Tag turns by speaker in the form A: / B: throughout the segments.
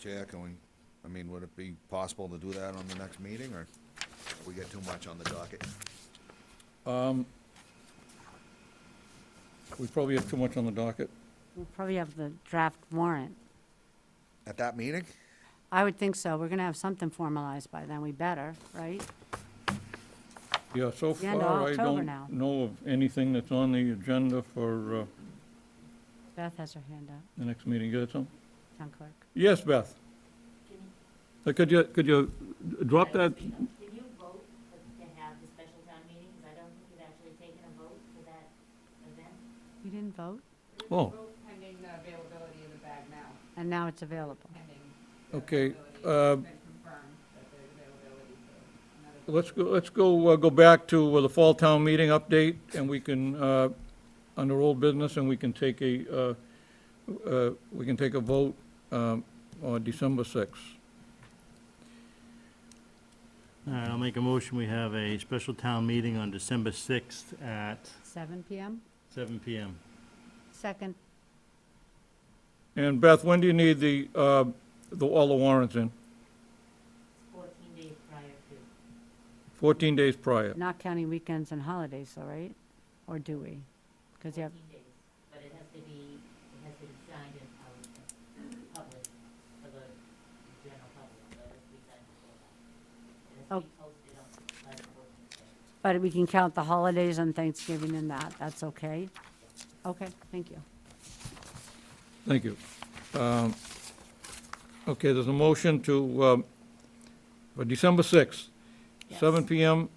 A: Chair, can we, I mean, would it be possible to do that on the next meeting, or we get too much on the docket?
B: Um, We probably have too much on the docket.
C: We'll probably have the draft warrant.
A: At that meeting?
C: I would think so. We're going to have something formalized by then. We better, right?
B: Yeah, so
C: The end of
B: far, I
C: October
B: don't
C: now.
B: know of anything that's on the agenda for uh,
C: Beth has her hand up,
B: the next meeting. You got something?
C: town clerk.
B: Yes, Beth? Uh, Could you, could you drop that?
D: Did you vote for- to have the special town meeting? Because I don't think you've actually taken a vote for that event.
C: You didn't vote,
B: Oh,
E: Pending the availability of the bag now,
C: and now it's available.
E: pending. the
B: okay. uh,
E: availability. It's been confirmed that there's availability for another.
B: Let's go, let's go, uh, go back to uh, the fall town meeting update, and we can, uh, under old business, and we can take a, uh, uh, we can take a vote um, on December 6th.
F: All right, I'll make a motion. We have a special town meeting on December 6th at
C: 7 PM?
F: seven PM.
C: Second,
B: And Beth, when do you need the, uh, the, all the warrants in?
D: It's 14 days prior to.
B: 14 days prior.
C: not counting weekends and holidays, though, right? Or do we? Because you have,
D: 14 days, but it has to be, it has to be signed and out in public for the general public, so it has to be signed before that. It has to be posted on by the 14th day.
C: but we can count the holidays and Thanksgiving and that. That's okay? Okay, thank you.
B: Thank you. Um, Okay, there's a motion to, um, for December 6th,
C: Yes.
B: 7 PM.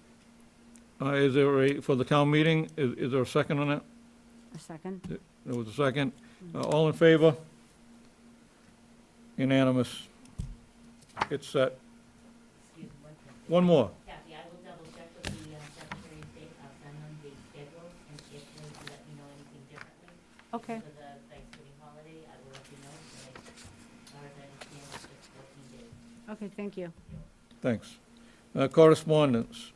B: Uh, Is there a, for the town meeting, is is there a second on that?
C: A second?
B: There was a second. Uh, All in favor? Unanimous. It's set.
D: Excuse me, one second.
B: One more.
D: Kathy, I will double check with the uh, Secretary of State, I'll send them the schedule, and if they let me know anything differently.
C: Okay,
D: For the Thanksgiving holiday, I will let you know, but as far as I understand, it's just 14 days.
C: okay, thank you.
B: Thanks. Uh, Correspondence.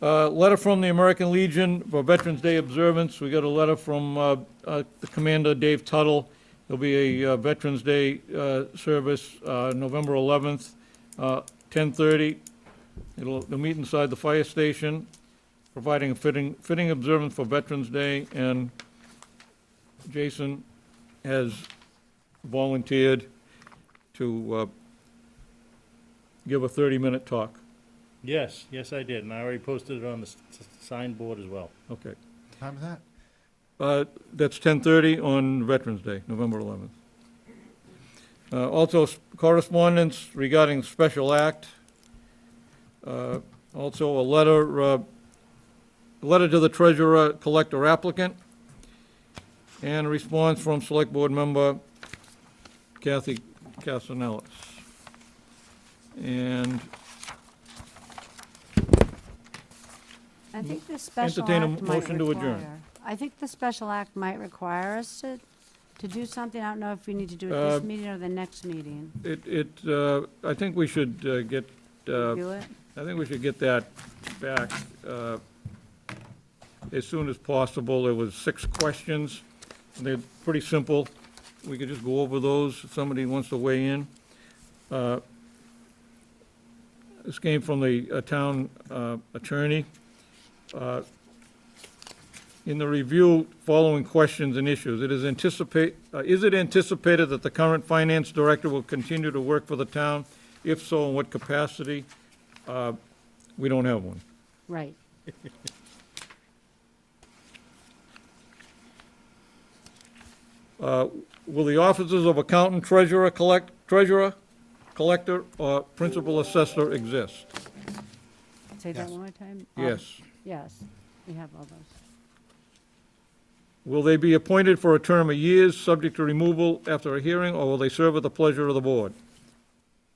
B: Uh, Letter from the American Legion for Veterans Day observance. We got a letter from uh, uh, Commander Dave Tuttle. There'll be a uh, Veterans Day uh, service uh, November 11th, uh, 10:30. It'll, they'll meet inside the fire station, providing a fitting, fitting observance for Veterans Day. And Jason has volunteered to uh, give a 30-minute talk.
F: Yes, yes, I did, and I already posted it on the s- s- signboard as well.
B: Okay.
G: Time is that?
B: Uh, That's 10:30 on Veterans Day, November 11th. Uh, Also, s- correspondence regarding special act. Uh, Also, a letter, uh, a letter to the treasurer collector applicant, and a response from Select Board Member Kathy Castellalis. And
C: I think the special
B: entertain a
C: act might
B: motion to adjourn.
C: require, I think the special act might require us to, to do something. I don't know if we need to do it
B: Uh,
C: this meeting or the next meeting.
B: it, it, uh, I think we should uh, get. uh,
C: Do it?
B: I think we should get that back uh, as soon as possible. There was six questions, and they're pretty simple. We could just go over those if somebody wants to weigh in. Uh, This came from the uh, town uh, attorney. Uh, In the review, following questions and issues, it is anticipate, uh, is it anticipated that the current finance director will continue to work for the town? If so, in what capacity? We don't have one.
C: Right.
B: Uh, Will the offices of accountant, treasurer, collect, treasurer, collector, or principal assessor exist?
C: Say that
G: Yes.
C: one more time? Um,
B: Yes.
C: Yes, we have all those.
B: Will they be appointed for a term of years, subject to removal after a hearing, or will they serve at the pleasure of the board?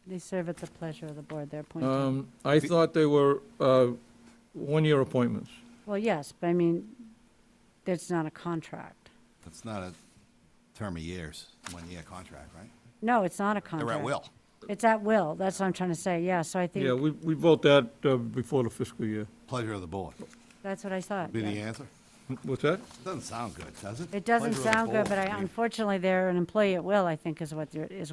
C: They serve at the pleasure of the board, they're appointed.
B: Um, I thought they were uh, one-year appointments.
C: Well, yes, but I mean, that's not a contract.
G: That's not a term of years, one-year contract, right?
C: No, it's not a contract.
G: They're at will.
C: It's at will, that's what I'm trying to say, yeah, so I
B: Yeah,
C: think,
B: we we vote that uh, before the fiscal year.
G: Pleasure of the board.
C: that's what I thought.
G: Be the
C: yeah.
G: answer?
B: What's that?
G: Doesn't sound good, does it?
C: It doesn't
G: Pleasure of the
C: sound good,
G: board.
C: but I,
G: mean-
C: unfortunately, they're an employee at will, I think is what they're, is